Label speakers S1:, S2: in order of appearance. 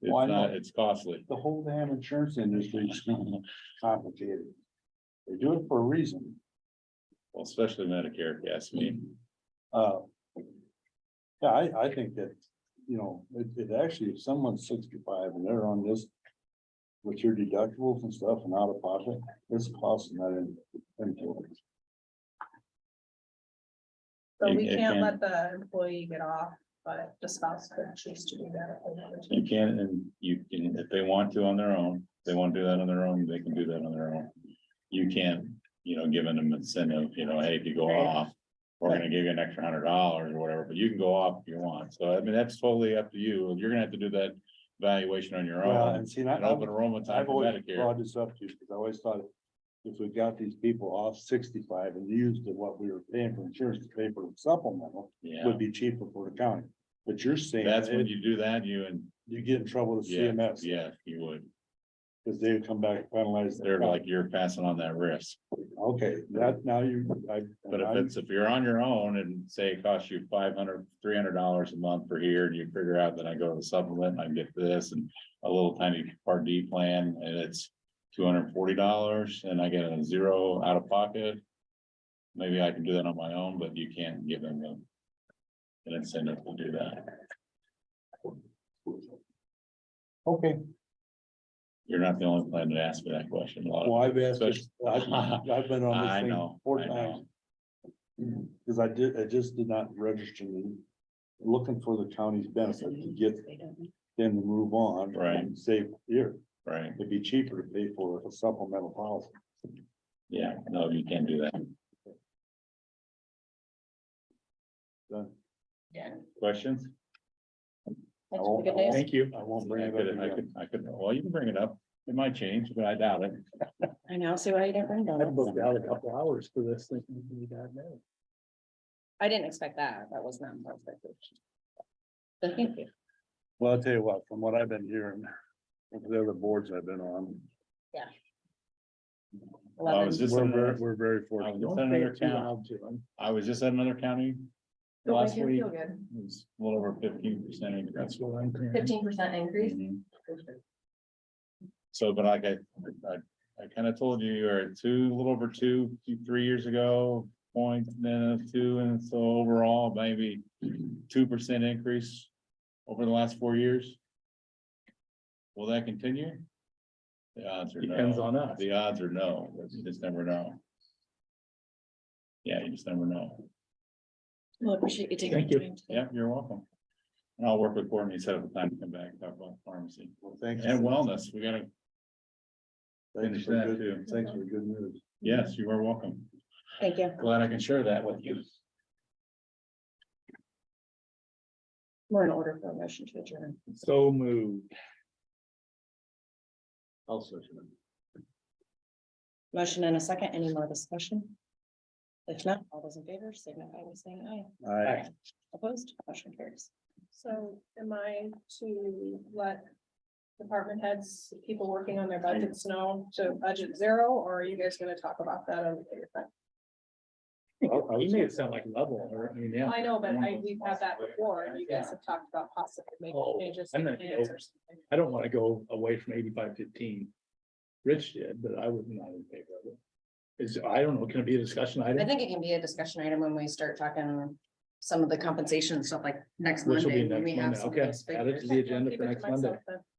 S1: Why
S2: It's not,
S1: not?
S2: it's costly.
S1: The whole damn insurance industry is complicated. They do it for a reason.
S2: Well, especially Medicare, if you ask
S1: Mm-hmm.
S2: me.
S1: Uh. Yeah, I, I think that, you know, it, it actually, if someone's sixty-five and they're on this. With your deductibles and stuff and out of pocket, it's costing that in, in-
S2: It-
S3: But we
S2: it
S3: can't
S2: can.
S3: let the employee get off, but the spouse could choose to do that. if they wanted to.
S2: You can, and you can, if they want to on their own, if they want to do that on their own, they can do that on their own. You can't, you know, giving them incentive, you know, hey, if you go off, we're gonna give you an extra hundred dollars or whatever, but you can go off if you want. So I mean, that's totally up to you. You're gonna have to do that valuation on your
S1: Well,
S2: own.
S1: and see, I-
S2: And open
S1: I've,
S2: enrollment time
S1: I've
S2: for
S1: always
S2: Medicare.
S1: brought this up to you, because I always thought. If we got these people off sixty-five and used to what we were paying for insurance to pay for supplemental, it
S2: Yeah,
S1: would be cheaper for the county. But you're saying
S2: that's when
S1: it-
S2: you do that, you and,
S1: you get in trouble with
S2: yeah,
S1: CMS.
S2: yeah, you would.
S1: Cause they come back and finalize. their
S2: They're like, you're passing on that risk.
S1: Okay, that now you, I.
S2: But if
S1: I'm-
S2: it's, if you're on your own and say it costs you five hundred, three hundred dollars a month per year and you figure out that I go to the supplement, I get this and a little tiny part D plan and it's two hundred and forty dollars and I get a zero out of pocket. Maybe I can do that on my own, but you can't give them a- an incentive to do that.
S1: Okay,
S2: You're not the only plan that asked me that question. A lot of,
S1: well, I've asked, this- I've, I've been on
S2: I
S1: this thing
S2: know,
S1: four
S2: I know.
S1: times. Cause I did, I just did not register me, looking for the county's benefit to get them to move on.
S2: Right.
S1: and Save here,
S2: right?
S1: it'd be cheaper to pay for a supplemental policy.
S2: Yeah, no, you can't do that.
S1: Done.
S2: Questions?
S1: I won't- I won't-
S4: you.
S1: I won't
S2: I
S1: bring it
S2: could, I
S1: up again.
S2: could, I could, well, you can bring it up. It might change, but I doubt it.
S4: I now see why you didn't bring
S5: I booked out a
S4: donuts.
S5: couple hours for this thinking it'd be that bad.
S4: I didn't expect that. That was not my expectation. But thank you.
S1: Well, I'll tell you what, from what I've been hearing, from the other boards I've been on,
S2: I was just
S1: we're
S2: in
S1: very,
S2: another,
S1: we're very
S2: I
S1: fortunate.
S2: was
S5: Don't
S2: just in
S5: say
S2: another
S5: it too
S2: county,
S5: loud to them.
S2: I was just at another county
S6: Don't
S2: last
S6: make him
S2: week.
S6: feel
S2: It
S6: good.
S2: was a little over fifteen percent
S5: That's
S2: increase.
S5: what I'm hearing.
S6: Fifteen percent increase.
S2: Mhm. So, but like I, I, I kind of told you, you were at two, a little over two, two, three years ago, point, then a two, and so overall, maybe two percent increase over the last four years. Will that continue? The odds are no.
S5: Depends on us.
S2: The odds are no, you just never know. Yeah, you just never know.
S4: Well, appreciate you taking
S5: Thank
S4: the
S5: you.
S4: time. today.
S2: Yeah, you're welcome. And I'll work with Courtney, set up a time to come back, and talk about pharmacy
S1: Well, Thanks.
S2: and wellness. We gotta,
S1: Thanks
S2: finish
S1: for
S2: that
S1: good,
S2: too.
S1: thanks for good news.
S2: yes, you are welcome.
S4: Thank you.
S2: Glad I can share that with you.
S4: We're in order for a motion to adjourn.
S5: So moved.
S1: Also.
S4: Motion and a second. Any more discussion? If not, all those in favor signify by saying aye.
S1: I,
S4: Opposed, motion carries.
S3: So am I to let department heads, people working on their budgets know to budget zero, or are you guys gonna talk about that? on the-
S5: You made it sound like level, or, I mean, yeah.
S3: I know, but I, we've had that before, and you guys have talked about possibly making
S5: Oh,
S3: changes.
S5: I'm
S3: to
S5: not-
S3: plans or something.
S5: I don't want to go away from eighty-five fifteen. Rich did, but I was not in favor of it. Is, I don't know, can it be a discussion
S4: I
S5: item?
S4: think it can be a discussion item when we start talking some of the compensation and stuff like next
S5: Which will
S4: Monday.
S5: be
S4: when
S5: next
S4: we have
S5: Monday.
S4: some of
S5: Okay,
S4: those
S5: add it
S4: figures.
S5: to the agenda
S3: Keep
S5: for
S3: it to
S5: next
S3: myself
S5: Monday.
S3: then.